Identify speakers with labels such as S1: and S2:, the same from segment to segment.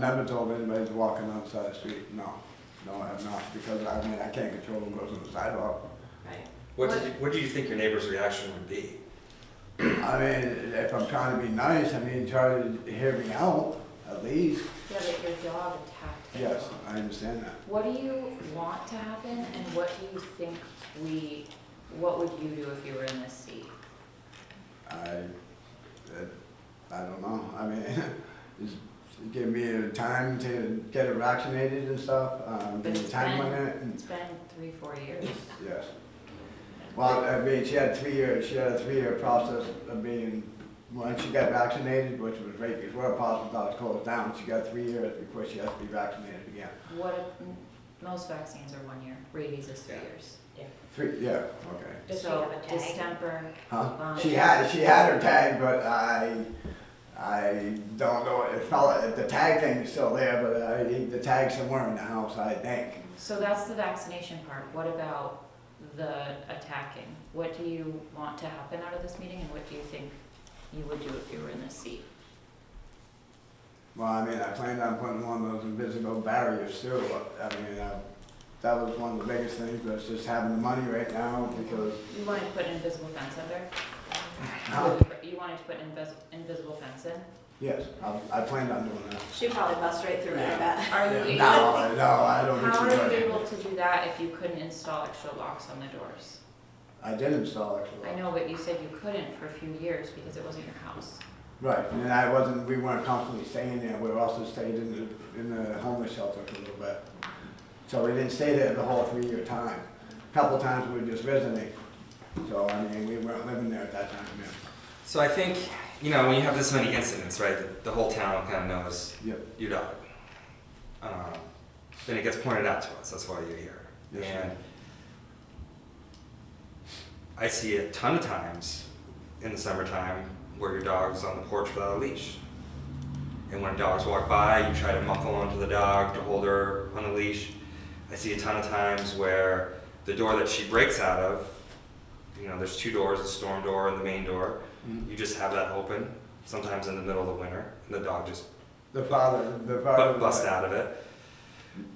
S1: Never told anybody to walk on the other side of the street, no. No, I have not, because I mean, I can't control who goes on the sidewalk.
S2: Right.
S3: What did you, what do you think your neighbor's reaction would be?
S1: I mean, if I'm trying to be nice, I mean, try to hear me out, at least.
S2: Yeah, but your dog attacked the
S1: Yes,
S2: dog.
S1: I understand that.
S2: What do you want to happen and what do you think we, what would you do if you were in this seat?
S1: I, it, I don't know. I mean, just give me a time to get it vaccinated and stuff. Um,
S2: But
S1: give me a
S2: it's
S1: time
S2: been-
S1: limit. and-
S2: It's been three, four years.
S1: Yes. Well, I mean, she had three year, she had a three year process of being, once she got vaccinated, which was right before the hospital was closed down, she got three years before she has to be vaccinated again.
S2: What, if- most vaccines are one year, rabies is three
S3: Yeah.
S2: years.
S1: Three, yeah, okay.
S4: Does she
S2: So
S4: have a tag?
S2: distemper,
S1: Huh?
S2: Um,
S1: She had, she had her tag, but I, I don't know, it fell, the tag thing is still there, but I, the tag's somewhere in the house, I think.
S2: so that's the vaccination part. What about the attacking? What do you want to happen out of this meeting and what do you think you would do if you were in this seat?
S1: Well, I mean, I planned on putting one of those invisible barriers too. I mean, uh, that was one of the biggest things, but it's just having the money right now because,
S2: You wanted to put an invisible fence up there?
S1: Huh?
S2: You wanted to put an invis- invisible fence in?
S1: yes, I, I planned on doing that.
S4: She probably busts right through it, I bet.
S2: Are you?
S1: No, I- no, I don't
S2: How
S1: think
S2: are you
S1: she
S2: able
S1: would.
S2: to do that if you couldn't install extra locks on the doors?
S1: I did install it.
S2: I know, but you said you couldn't for a few years because it wasn't your house.
S1: Right, and I wasn't, we weren't constantly staying there, we also stayed in the, in the homeless shelter for a little bit. So we didn't stay there the whole three-year time. A Couple times we were just visiting, so I mean, we weren't living there at that time, yeah.
S3: So I think, you know, when you have this many incidents, right, the, the whole town kind of knows
S1: Yep.
S3: your dog. Um, then it gets pointed out to us. That's why you're here.
S1: Yes, sir.
S3: and I see a ton of times in the summertime where your dog's on the porch without a leash. And when dogs walk by, you try to muffle onto the dog to hold her on a leash. I see a ton of times where the door that she breaks out of, you know, there's two doors, the storm door and the main door.
S1: Mhm.
S3: You just have that open, sometimes in the middle of the winter, and the dog just
S1: The father, the father.
S3: bu- bust out of it.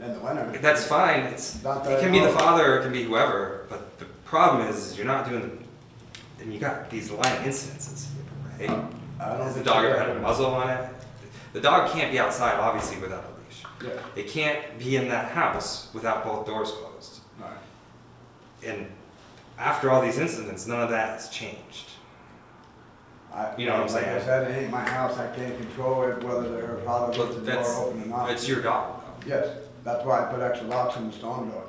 S1: In the winter.
S3: That's fine. It's
S1: Not
S3: it
S1: that
S3: can be the
S1: hard.
S3: father, it can be whoever. But the problem is, is you're not doing the, and you got these line incidences, right?
S1: I don't
S3: Has the
S1: think
S3: dog
S1: she
S3: ever
S1: did.
S3: had a muzzle on it? The dog can't be outside, obviously, without a leash.
S1: Yeah,
S3: It can't be in that house without both doors closed.
S1: right.
S3: And after all these incidents, none of that has changed.
S1: I-
S3: You know what I'm
S1: like I
S3: saying?
S1: said, it ain't my house, I can't control it, whether her father
S3: But
S1: lets the
S3: that's-
S1: door open or not.
S3: It's your dog, though.
S1: Yes, that's why I put extra locks on the storm door.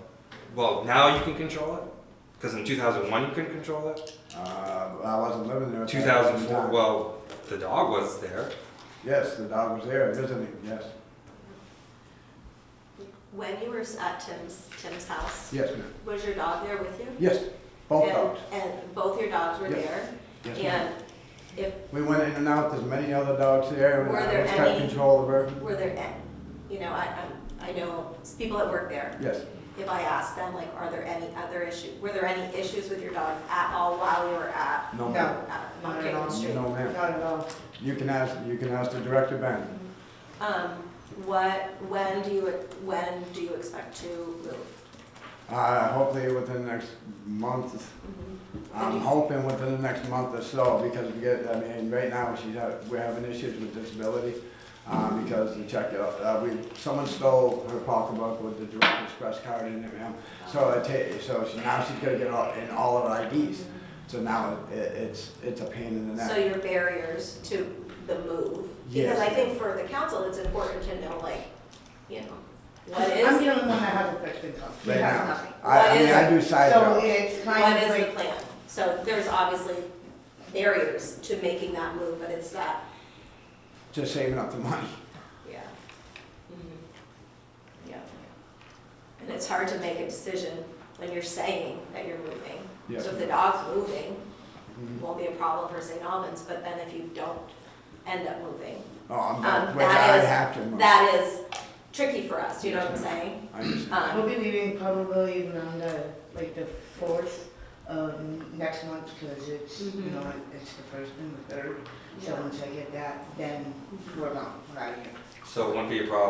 S3: Well, now you can control it, because in 2001 you couldn't control it.
S1: Uh, I wasn't living there. at that point in
S3: 2004,
S1: time.
S3: well, the dog was there.
S1: Yes, the dog was there visiting, yes.
S4: When you were s- at Tim's, Tim's house,
S1: Yes, ma'am.
S4: was your dog there with you?
S1: Yes, both
S4: And-
S1: dogs.
S4: And both your dogs were
S1: Yes.
S4: there?
S1: Yes, ma'am.
S4: And if,
S1: We went in and out, there's many other dogs there.
S4: Were
S1: I
S4: there
S1: always kept
S4: any-
S1: Control of her,
S4: were there, a- you know, I, I'm- I know s- people that work there.
S1: yes.
S4: If I asked them, like, are there any other issues, were there any issues with your dogs at all while you were at,
S1: No,
S5: No,
S1: ma'am.
S4: at
S5: Not at
S4: Montgomery
S5: all.
S4: Street?
S1: No, ma'am.
S5: not at all.
S1: You can ask, you can ask the director, Ben.
S4: Um, what, when do you, when do you expect to move?
S1: Uh, hopefully within the next month, I'm hoping within the next month or so, because we get, I mean, right now, she's, ha- we're having issues with disability, uh,
S4: Mm-hmm.
S1: because the check, uh, we, someone stole her pocketbook with the direct express card in it, ma'am. So it ta, so she, now she's gonna get all, in all her IDs, so now it, it's, it's a pain in the
S4: So
S1: neck.
S4: your barriers to the move?
S1: Yes.
S4: Because I think for the council, it's important to know, like, you know, what
S5: I'm
S4: is,
S5: the only one that has a fixed income. He
S1: Right
S5: has
S1: now.
S5: nothing.
S1: I, I mean, I do side
S5: So
S1: jobs,
S5: it's kind
S4: what
S5: of
S4: is the
S5: like,
S4: plan? So there's obviously barriers to making that move, but it's that,
S1: just saving up the money.
S4: yeah. Mhm. Yeah. And it's hard to make a decision when you're saying that you're moving.
S1: Yes.
S4: So if the dog's moving,
S1: Mhm.
S4: won't be a problem for St. Albans, but then if you don't end up moving,
S1: Oh, I'm,
S4: Um,
S1: well,
S4: that
S1: I
S4: is-
S1: have to. move.
S4: that is tricky for us, you know what I'm saying?
S1: I understand.
S4: Um,
S5: we'll be leaving probably on the, like, the fourth of next month, because it's, you
S4: Mhm.
S5: know, it's the first and the third. So once I get that, then we're gone, we're out of here.
S3: So it wouldn't be a problem